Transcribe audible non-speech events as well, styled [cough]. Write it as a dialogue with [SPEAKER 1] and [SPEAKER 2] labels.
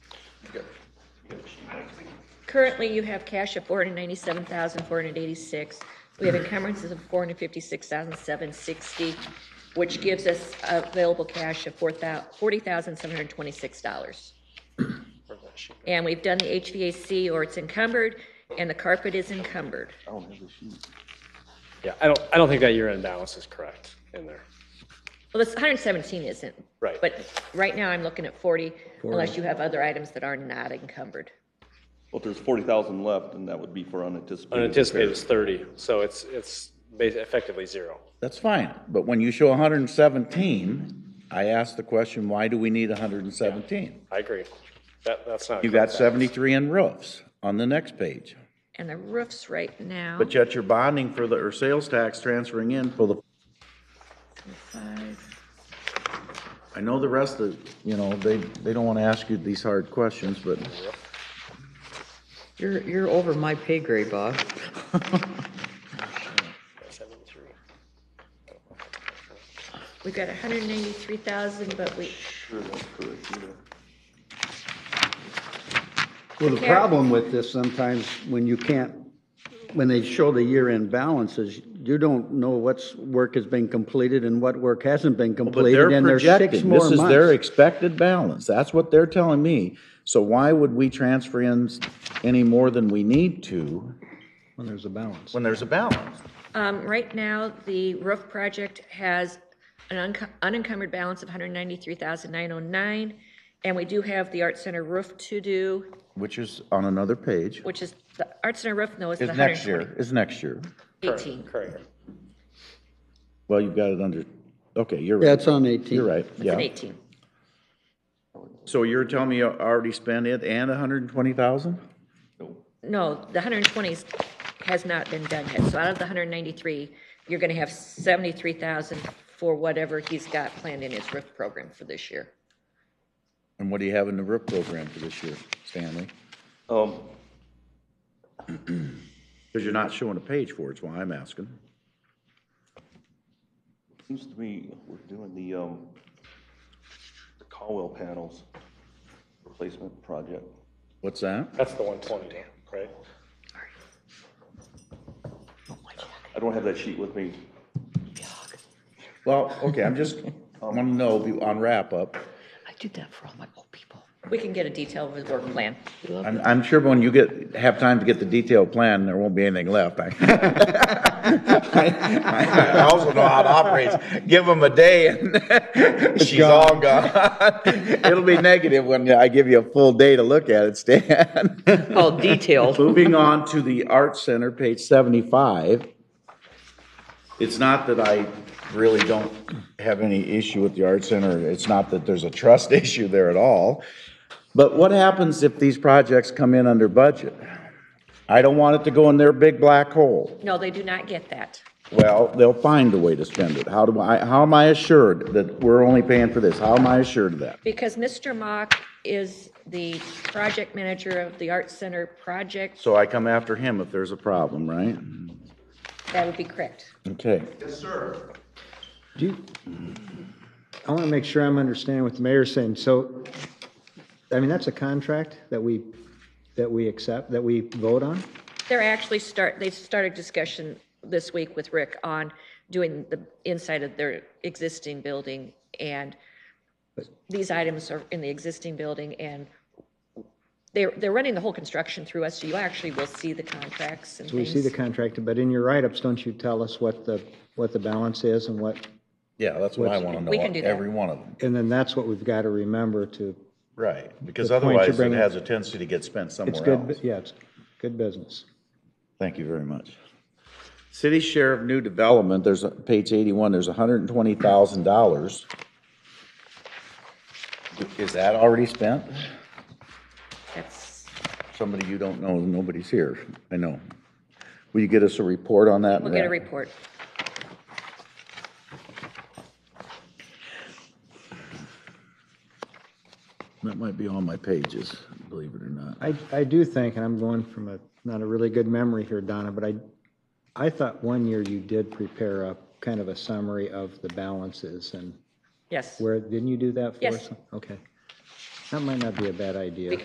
[SPEAKER 1] Currently, you have cash of 497,486. We have encumbrances of 456,760, which gives us available cash of four thou- $40,726. And we've done the HVAC, or it's encumbered, and the carpet is encumbered.
[SPEAKER 2] Yeah, I don't, I don't think that year-end balance is correct in there.
[SPEAKER 1] Well, this 117 isn't.
[SPEAKER 2] Right.
[SPEAKER 1] But right now, I'm looking at 40, unless you have other items that are not encumbered.
[SPEAKER 3] Well, if there's forty thousand left, then that would be for unanticipated.
[SPEAKER 2] Unanticipated is 30, so it's, it's ba- effectively zero.
[SPEAKER 4] That's fine, but when you show hundred and seventeen, I ask the question, why do we need hundred and seventeen?
[SPEAKER 2] I agree. That, that's not. a
[SPEAKER 4] You got
[SPEAKER 2] correct balance.
[SPEAKER 4] seventy-three in roofs on the next page,
[SPEAKER 1] And the roofs right now,
[SPEAKER 4] but yet you're bonding for the, or sales tax transferring in for the,
[SPEAKER 1] five,
[SPEAKER 4] I know the rest of, you know, they, they don't want to ask you these hard questions, but
[SPEAKER 5] You're, you're over my pay grade, Bob.
[SPEAKER 2] 73.
[SPEAKER 1] we've got 193,000, but we,
[SPEAKER 6] Well, the
[SPEAKER 1] Karen?
[SPEAKER 6] problem with this sometimes, when you can't, when they show the year-end balances, you don't know what's, work has been completed and what work hasn't been
[SPEAKER 4] But they're
[SPEAKER 6] completed, and there's six
[SPEAKER 4] projecting,
[SPEAKER 6] more
[SPEAKER 4] this is their
[SPEAKER 6] months.
[SPEAKER 4] expected balance, that's what they're telling me. So why would we transfer in s- any more than we need to
[SPEAKER 6] When there's a balance.
[SPEAKER 4] when there's a balance?
[SPEAKER 1] um, right now, the roof project has an unco- unencumbered balance of 193,909, and we do have the Art Center roof to do,
[SPEAKER 4] Which is on another page,
[SPEAKER 1] which is, the Art Center roof, no, is the
[SPEAKER 4] is next year, is next year.
[SPEAKER 1] 118.
[SPEAKER 2] Correct.
[SPEAKER 4] Well, you've got it under, okay, you're
[SPEAKER 6] Yeah,
[SPEAKER 4] right,
[SPEAKER 6] it's on 18.
[SPEAKER 4] you're right,
[SPEAKER 1] It's an
[SPEAKER 4] yeah.
[SPEAKER 1] 18.
[SPEAKER 4] So you're telling me you already spent it and a hundred and twenty thousand?
[SPEAKER 1] No, the 120 is- has not been done yet. So out of the 193, you're going to have 73,000 for whatever he's got planned in his roof program for this year.
[SPEAKER 4] And what do you have in the RIP program for this year, Stanley?
[SPEAKER 3] Um,
[SPEAKER 4] Because you're not showing a page for it, is why I'm asking.
[SPEAKER 3] seems to me we're doing the, um, the Caldwell panels replacement project.
[SPEAKER 4] What's that?
[SPEAKER 2] That's the 120, right?
[SPEAKER 5] Oh
[SPEAKER 3] I don't have that sheet with me.
[SPEAKER 4] Well, okay, I'm just, I want to know, if you- on wrap-up,
[SPEAKER 5] I did that for all my old people.
[SPEAKER 1] We can get a detailed of the work plan.
[SPEAKER 4] I'm, I'm sure when you get, have time to get the detailed plan, there won't be anything left. I [laughs] I- I also know how it operates. Give them a day and [laughs] she's all gone. [laughs] It'll be negative when I give you a full day to look at it, Stan.
[SPEAKER 5] All detailed.
[SPEAKER 4] Moving on to the Art Center, page seventy-five. It's not that I really don't have any issue with the Art Center. It's not that there's a trust [laughs] issue there at all. But what happens if these projects come in under budget? I don't want it to go in their big black hole.
[SPEAKER 1] No, they do not get that.
[SPEAKER 4] Well, they'll find a way to spend it. How do I, how am I assured that we're only paying for this? How am I assured of that?
[SPEAKER 1] Because Mr. Mock is the project manager of the Art Center project.
[SPEAKER 4] So I come after him if there's a problem, right?
[SPEAKER 1] That would be correct.
[SPEAKER 4] Okay.
[SPEAKER 7] Do you, I want to make sure I'm understanding what the mayor's saying. So, I mean, that's a contract that we, that we accept, that we vote on?
[SPEAKER 1] They're actually start, they started discussion this week with Rick on doing the inside of their existing building, and these items are in the existing building, and they're, they're running the whole construction through us, so you actually will see the contracts and
[SPEAKER 7] So we see the
[SPEAKER 1] things.
[SPEAKER 7] contract, but in your write-ups, don't you tell us what the, what the balance is and what,
[SPEAKER 4] Yeah, that's what I want to know,
[SPEAKER 1] We can do that.
[SPEAKER 4] every one of them.
[SPEAKER 7] and then that's what we've got to remember to,
[SPEAKER 4] Right, because
[SPEAKER 7] The point you're
[SPEAKER 4] otherwise it
[SPEAKER 7] bringing-
[SPEAKER 4] has a tendency to get spent
[SPEAKER 7] it's
[SPEAKER 4] somewhere
[SPEAKER 7] good,
[SPEAKER 4] else.
[SPEAKER 7] bu- yeah, it's good business.
[SPEAKER 4] Thank you very much. City share of new development, there's, a- page 81, there's $120,000. Is that already spent?
[SPEAKER 1] That's,
[SPEAKER 4] Somebody you don't know, nobody's here, I know. Will you get us a report on that?
[SPEAKER 1] we'll get a
[SPEAKER 4] Matt?
[SPEAKER 1] report.
[SPEAKER 4] That might be on my pages, believe it or not.
[SPEAKER 7] I, I do think, and I'm going from a, not a really good memory here, Donna, but I, I thought one year you did prepare a kind of a summary of the balances and
[SPEAKER 1] Yes.
[SPEAKER 7] Where, didn't you do that for
[SPEAKER 1] Yes.
[SPEAKER 7] us? Okay. That might not be a bad idea.